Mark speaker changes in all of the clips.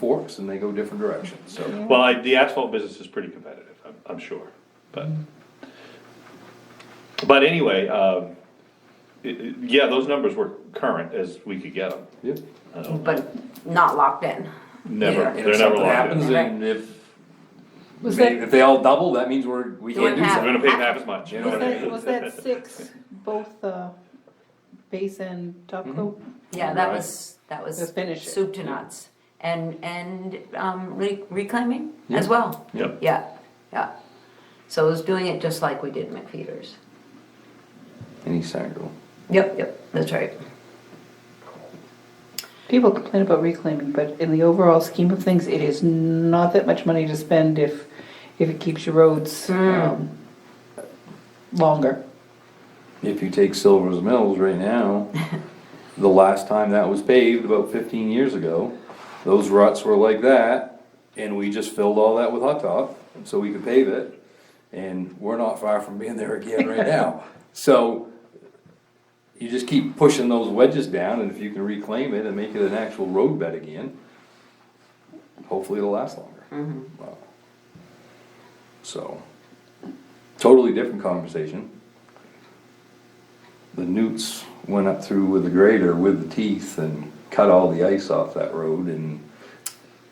Speaker 1: forks and they go different directions, so.
Speaker 2: Well, I, the asphalt business is pretty competitive, I'm, I'm sure, but. But anyway, um, it- it- yeah, those numbers were current as we could get them.
Speaker 1: Yep.
Speaker 3: but not locked in.
Speaker 2: Never,
Speaker 1: And
Speaker 2: they're
Speaker 1: if
Speaker 2: never
Speaker 1: something
Speaker 2: locked in.
Speaker 1: happens
Speaker 3: Right.
Speaker 1: and if,
Speaker 4: Was
Speaker 1: maybe
Speaker 4: that-
Speaker 1: if they all double, that means we're, we
Speaker 3: Doing
Speaker 1: can't do
Speaker 3: half.
Speaker 2: We're
Speaker 1: something.
Speaker 2: gonna pay half as much.
Speaker 1: You know
Speaker 4: Was
Speaker 1: what I
Speaker 4: that,
Speaker 1: mean?
Speaker 4: was that six, both the base and
Speaker 1: Mm-hmm.
Speaker 4: top coat?
Speaker 3: Yeah, that
Speaker 1: Right.
Speaker 3: was, that was
Speaker 4: Let's finish it.
Speaker 3: soup to nuts. And, and um, re- reclaiming as
Speaker 1: Yeah.
Speaker 3: well.
Speaker 2: Yep.
Speaker 3: Yeah, yeah. So it was doing it just like we did McFeeters.
Speaker 1: Any Sagal.
Speaker 3: Yep, yep, that's right.
Speaker 4: People complain about reclaiming, but in the overall scheme of things, it is not that much money to spend if, if it keeps your roads,
Speaker 1: Mm.
Speaker 4: um, longer.
Speaker 1: If you take Silver's Mills right now, the last time that was paved, about fifteen years ago, those ruts were like that, and we just filled all that with hot top, so we could pave it, and we're not far from being there again right now. So, you just keep pushing those wedges down, and if you can reclaim it and make it an actual road bed again, hopefully it'll last longer. Wow. So, totally different conversation. The newts went up through with the grader with the teeth and cut all the ice off that road and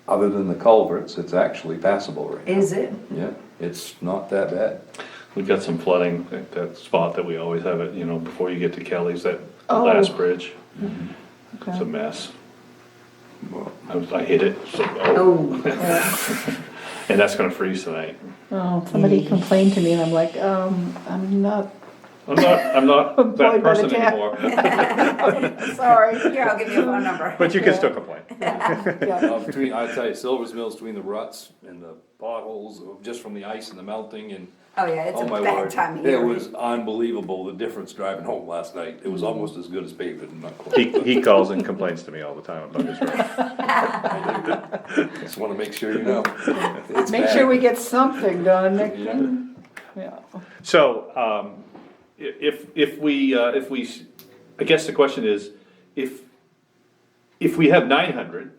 Speaker 1: other than the culverts, it's actually passable right now.
Speaker 3: Is it?
Speaker 1: Yeah, it's not that bad.
Speaker 2: We've got some flooding, at that spot that we always have it, you know, before you get to Kelly's, that
Speaker 4: Oh.
Speaker 2: last bridge. It's a
Speaker 4: Okay.
Speaker 2: mess.
Speaker 1: Well,
Speaker 2: I was, I hit it, so, oh,
Speaker 3: Oh,
Speaker 2: and that's gonna freeze tonight.
Speaker 4: Oh,
Speaker 1: Mm.
Speaker 4: somebody complained to me and I'm like, um, I'm not,
Speaker 2: I'm not, I'm not that
Speaker 4: Employed by the
Speaker 2: person
Speaker 4: town.
Speaker 2: anymore,
Speaker 4: sorry.
Speaker 3: here, I'll give you a phone number.
Speaker 2: but you can still complain.
Speaker 4: Yeah.
Speaker 1: Uh, Between, I tell you, Silver's Mills, between the ruts and the potholes, just from the ice and the melting and,
Speaker 3: Oh, yeah, it's
Speaker 1: oh
Speaker 3: a
Speaker 1: my
Speaker 3: bad
Speaker 1: word.
Speaker 3: time of
Speaker 1: It
Speaker 3: year.
Speaker 1: was unbelievable, the difference driving home last night. It was almost as good as paved and not quite.
Speaker 2: He, he calls and complains to me all the time about his road.
Speaker 1: Just wanna make sure you know. It's
Speaker 4: Make
Speaker 1: bad.
Speaker 4: sure we get something done, Nick.
Speaker 1: Yeah.
Speaker 4: Yeah.
Speaker 2: So, um, i- if, if we, uh, if we, s- I guess the question is, if, if we have nine hundred,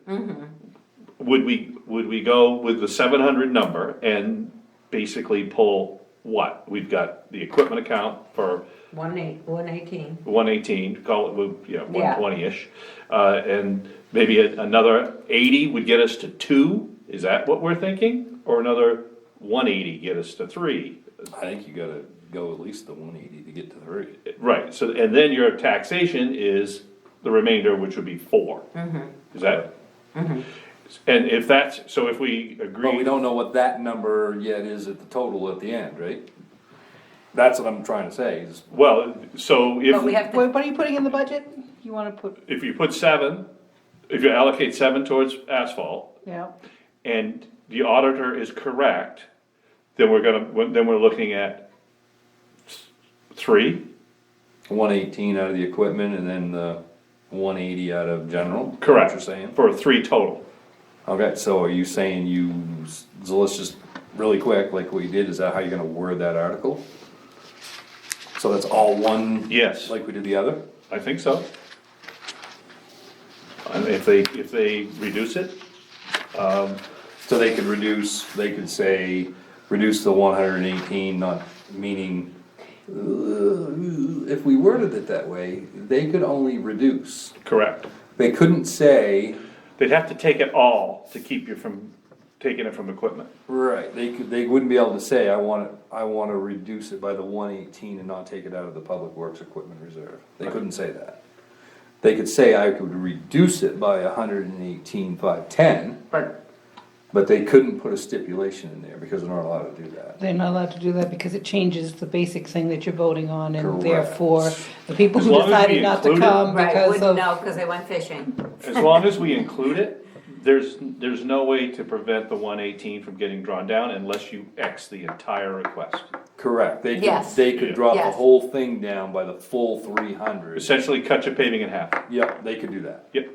Speaker 2: would we, would we go with the seven hundred number and basically pull what? We've got the equipment account for
Speaker 3: One eight, one eighteen.
Speaker 2: one eighteen, call it, well, yeah,
Speaker 3: Yeah.
Speaker 2: one twenty-ish. Uh, and maybe a- another eighty would get us to two, is that what we're thinking? Or another one eighty get us to three?
Speaker 1: I think you gotta go at least the one eighty to get to three.
Speaker 2: Right, so, and then your taxation is the remainder, which would be four.
Speaker 3: Mm-hmm.
Speaker 2: Is that? And if that's, so if we
Speaker 1: But we
Speaker 2: agree,
Speaker 1: don't know what that number yet is at the total at the end, right? That's what I'm trying to say, is
Speaker 2: well, so
Speaker 3: But we
Speaker 2: if,
Speaker 3: have to,
Speaker 4: What, what are you putting in the budget? You wanna put,
Speaker 2: if you put seven, if you allocate seven towards asphalt,
Speaker 4: yeah,
Speaker 2: and the auditor is correct, then we're gonna, then we're looking at three,
Speaker 1: one eighteen out of the equipment and then the one eighty out of general?
Speaker 2: correct?
Speaker 1: What you're saying?
Speaker 2: For three total.
Speaker 1: Okay, so are you saying you, so let's just, really quick, like we did, is that how you're gonna word that article? So that's all one?
Speaker 2: Yes.
Speaker 1: Like we did the other?
Speaker 2: I think so. And if they, if they reduce it,
Speaker 1: So they could reduce, they could say, reduce the one hundred and eighteen, not, meaning, uh, if we worded it that way, they could only reduce.
Speaker 2: correct.
Speaker 1: They couldn't say,
Speaker 2: They'd have to take it all to keep you from taking it from equipment.
Speaker 1: right, they could, they wouldn't be able to say, I wanna, I wanna reduce it by the one eighteen and not take it out of the public works equipment reserve. They couldn't say that. They could say, I could reduce it by a hundred and eighteen, five, ten,
Speaker 3: but,
Speaker 1: but they couldn't put a stipulation in there, because they're not allowed to do that.
Speaker 4: they're not allowed to do that because it changes the basic thing that you're voting on and
Speaker 1: Correct.
Speaker 4: therefore the people
Speaker 2: As
Speaker 4: who
Speaker 2: long as we
Speaker 4: decided not to
Speaker 2: include it.
Speaker 4: come
Speaker 3: right,
Speaker 4: because
Speaker 3: wouldn't
Speaker 4: of.
Speaker 3: know, cause they went fishing.
Speaker 2: As long as we include it, there's, there's no way to prevent the one eighteen from getting drawn down unless you X the entire request.
Speaker 1: Correct, they could,
Speaker 3: Yes.
Speaker 1: they could drop the
Speaker 3: Yes.
Speaker 1: whole thing down by the full three hundred.
Speaker 2: Essentially cut your paving in half.
Speaker 1: Yep, they could do that.
Speaker 2: Yep,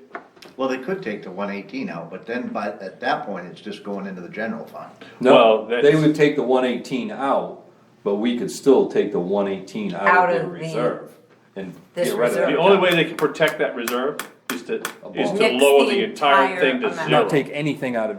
Speaker 5: Well, they could take the one eighteen out, but then by, at that point, it's just going into the general fund.
Speaker 1: No,
Speaker 2: Well,
Speaker 1: they
Speaker 2: that's-
Speaker 1: would take the one eighteen out, but we could still take the one eighteen out
Speaker 3: Out
Speaker 1: of the
Speaker 3: of the-
Speaker 1: reserve. And
Speaker 3: this
Speaker 1: get rid of
Speaker 3: reserve.
Speaker 2: the
Speaker 1: that.
Speaker 2: only way they can protect that reserve is to,
Speaker 1: A
Speaker 2: is
Speaker 1: bond.
Speaker 2: to
Speaker 3: Nix
Speaker 2: lower
Speaker 3: the
Speaker 2: the entire
Speaker 3: entire
Speaker 2: thing to
Speaker 3: amount.
Speaker 2: zero.
Speaker 1: Not take anything out of